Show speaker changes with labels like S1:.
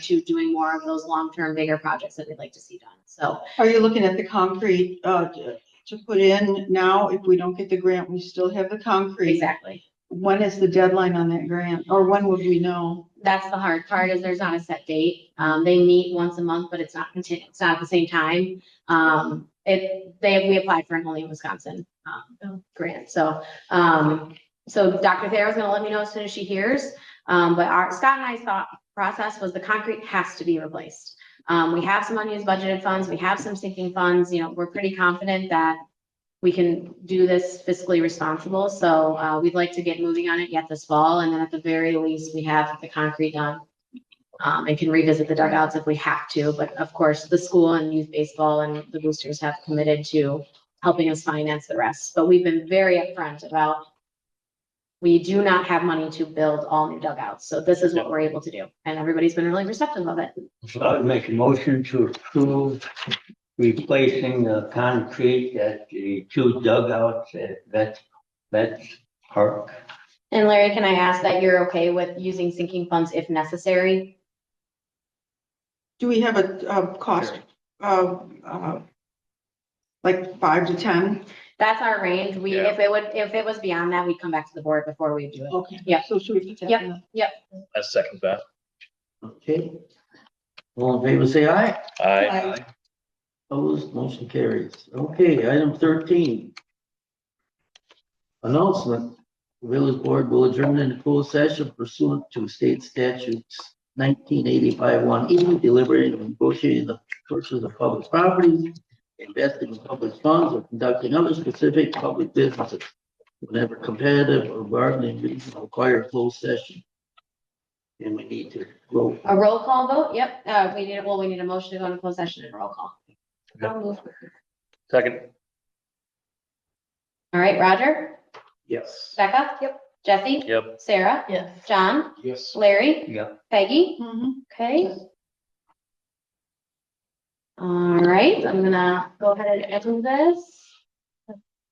S1: to doing more of those long-term bigger projects that we'd like to see done. So
S2: Are you looking at the concrete, uh, to to put in now? If we don't get the grant, we still have the concrete.
S1: exactly.
S2: When is the deadline on that grant? Or when would we know?
S1: That's the hard part is there's not a set date. Um, they meet once a month, but it's not continu- it's not at the same time. Um, it, they, we applied for an only in Wisconsin, um, grant. So, um, so Dr. Thayer's gonna let me know as soon as she hears. Um, but our, Scott and I's thought process was the concrete has to be replaced. Um, we have some unused budgeted funds. We have some sinking funds. You know, we're pretty confident that we can do this fiscally responsible, so uh, we'd like to get moving on it yet this fall, and then at the very least, we have the concrete done. Um, and can revisit the dugouts if we have to, but of course, the school and youth baseball and the boosters have committed to helping us finance the rest, but we've been very upfront about we do not have money to build all new dugouts, so this is what we're able to do, and everybody's been really receptive of it.
S3: So I would make a motion to approve replacing the concrete at the two dugouts at Vets, Vets Park.
S1: And Larry, can I ask that you're okay with using sinking funds if necessary
S2: Do we have a, uh cost of, uh, like five to ten?
S1: That's our range. We,
S4: Yeah.
S1: if it would, if it was beyond that, we'd come back to the board before we do it.
S2: Okay.
S1: Yeah.
S2: So should we?
S1: Yep.
S4: I second that.
S5: Okay. All in favor, say aye.
S4: I,
S2: Aye.
S5: Opposed, motion carries. Okay, item thirteen. Announcement, village board will adjourn into closed session pursuant to state statutes nineteen eighty-five one E, deliberating and negotiating the purchase of public properties, investing in public funds, or conducting other specific public businesses whenever competitive or bargaining reasons require closed session. And we need to vote.
S1: A roll call vote? Yep. Uh, we need, well, we need a motion to go into closed session and roll call.
S4: Yep.
S1: All
S4: second.
S1: right, Roger,
S5: Yes.
S1: Becca? Yep. Jesse?
S4: Yep.
S1: Sarah? Yes. John?
S5: Yes.
S1: Larry?
S3: Yep.
S1: Peggy?
S2: Mhm.
S1: Okay. All right, I'm gonna go ahead and end this.